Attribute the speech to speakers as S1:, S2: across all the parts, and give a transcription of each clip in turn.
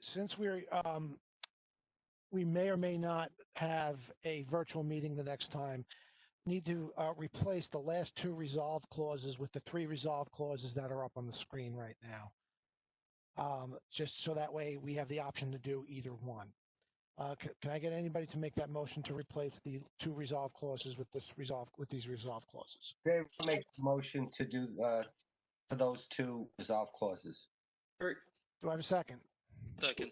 S1: since we're, um, we may or may not have a virtual meeting the next time, need to uh, replace the last two resolve clauses with the three resolve clauses that are up on the screen right now. Um, just so that way we have the option to do either one. Uh, can, can I get anybody to make that motion to replace the two resolve clauses with this resolve, with these resolve clauses?
S2: Dave, I'll make a motion to do, uh, for those two resolve clauses.
S1: Do I have a second?
S3: Second.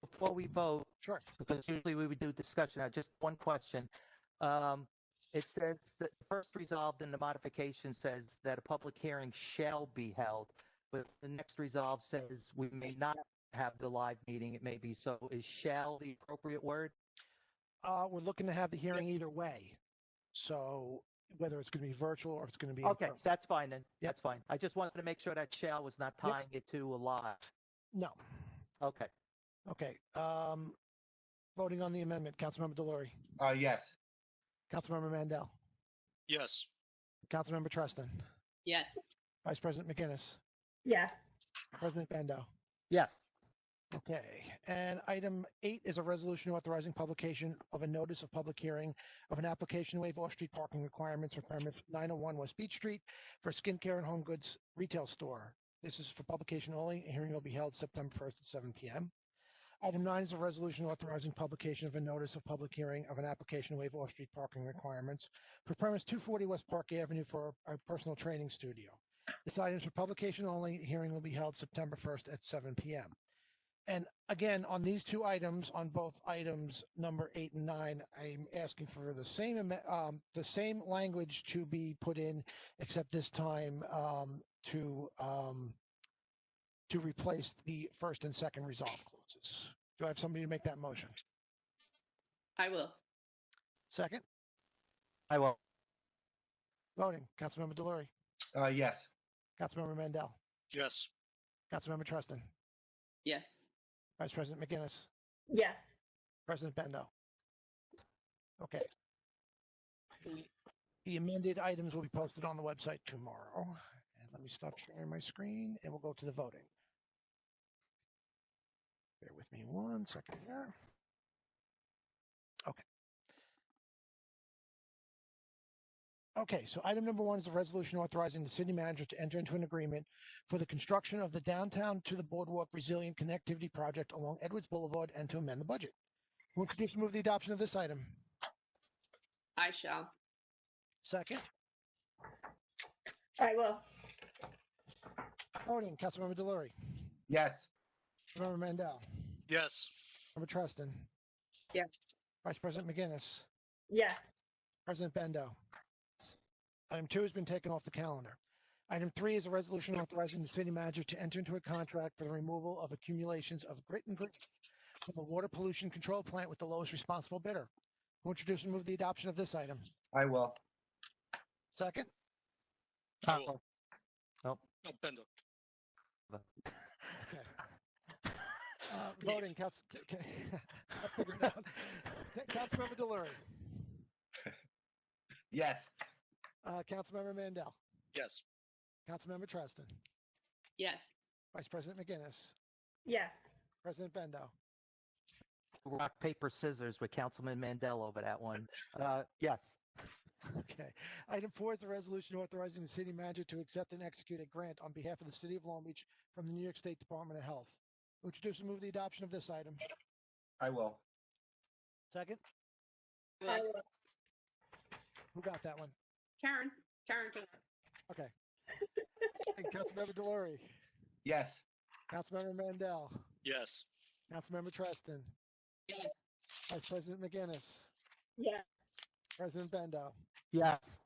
S4: before we vote,
S1: Sure.
S4: because usually we would do discussion, I just one question. Um, it says that the first resolved in the modification says that a public hearing shall be held, but the next resolve says we may not have the live meeting, it may be, so is shall the appropriate word?
S1: Uh, we're looking to have the hearing either way. So whether it's going to be virtual or if it's going to be. in
S4: Okay,
S1: person.
S4: that's fine then, that's fine. I just wanted to make sure that shall was not
S1: Yep.
S4: tying it to a live.
S1: No.
S4: Okay,
S1: Okay. Um, voting on the amendment, Councilmember Delory,
S2: Uh, yes,
S1: Councilmember Mandel,
S3: Yes.
S1: Councilmember Treston,
S5: Yes.
S1: Vice President McGinnis,
S5: Yes.
S1: President Bando.
S4: yes,
S1: Okay, and item eight is a resolution authorizing publication of a notice of public hearing of an application to waive off-street parking requirements for permit 901 West Beach Street for a skincare and home goods retail store. This is for publication only. A hearing will be held September 1st at 7 p.m. Item nine is a resolution authorizing publication of a notice of public hearing of an application to waive off-street parking requirements for premise 240 West Park Avenue for a personal training studio. This item is for publication only. A hearing will be held September 1st at 7 p.m. And again, on these two items, on both items number eight and nine, I'm asking for the same, ame- um, the same language to be put in, except this time, um, to, um, to replace the first and second resolve clauses. Do I have somebody to make that motion?
S5: I will.
S1: Second,
S4: I will,
S1: voting, Councilmember Delory,
S2: uh, yes,
S1: Councilmember Mandel,
S3: Yes.
S1: Councilmember Treston,
S5: Yes.
S1: Vice President McGinnis,
S5: Yes.
S1: President Bendo. Okay. The- The amended items will be posted on the website tomorrow. And let me stop sharing my screen and we'll go to the voting. Bear with me one second here. Okay. Okay, so item number one is a resolution authorizing the city manager to enter into an agreement for the construction of the downtown to the boardwalk resilient connectivity project along Edwards Boulevard and to amend the budget. Who could just move the adoption of this item?
S5: I shall.
S1: Second.
S5: I will.
S1: Voting, Councilmember Delory,
S2: yes,
S1: Member Mandel,
S3: Yes.
S1: Member Treston,
S5: Yes.
S1: Vice President McGinnis,
S5: Yes.
S1: President Bendo. Item two has been taken off the calendar. Item three is a resolution authorizing the city manager to enter into a contract for the removal of accumulations of grit and grease from the water pollution control plant with the lowest responsible bidder. Who introduce and move the adoption of this item?
S2: I will.
S1: Second.
S4: I
S3: Cool.
S4: will,
S3: Oh, Bendo.
S1: Okay. Uh, Voting, Council, okay. I figured it out. Councilmember Delory,
S2: Yes,
S1: uh, Councilmember Mandel,
S3: Yes.
S1: Councilmember Treston,
S5: Yes.
S1: Vice President McGinnis,
S5: Yes.
S1: President Bendo.
S4: rock, paper, scissors with Councilman Mandel over that one. Uh, yes,
S1: Okay. Item four is a resolution authorizing the city manager to accept and execute a grant on behalf of the city of Long Beach from the New York State Department of Health. Would you just move the adoption of this item?
S2: I will.
S1: Second.
S5: I will.
S1: Who got that one?
S5: Karen. Karen. can-
S1: Okay. And Councilmember Delory,
S2: Yes,
S1: Councilmember Mandel,
S3: Yes.
S1: Councilmember Treston,
S5: Yes.
S1: Vice President McGinnis,
S5: Yes.
S1: President Bendo.
S4: yes.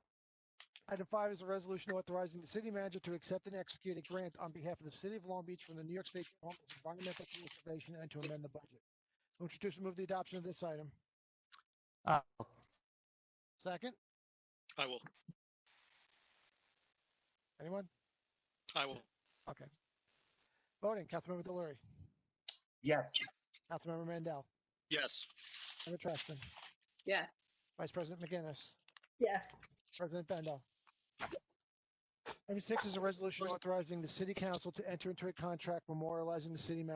S1: Item five is a resolution authorizing the city manager to accept and execute a grant on behalf of the city of Long Beach from the New York State Department of Environmental Conservation and to amend the budget. Would you just move the adoption of this item?
S4: Uh,
S1: Second?
S3: I will.
S1: Anyone?
S3: I will.
S1: Okay. Voting, Councilmember Delory,
S2: yes,
S1: Councilmember Mandel,
S3: Yes.
S1: Member Treston,
S5: Yes.
S1: Vice President McGinnis,
S5: Yes.
S1: President Bendo. Item six is a resolution authorizing the city council to enter into a contract memorializing the city manager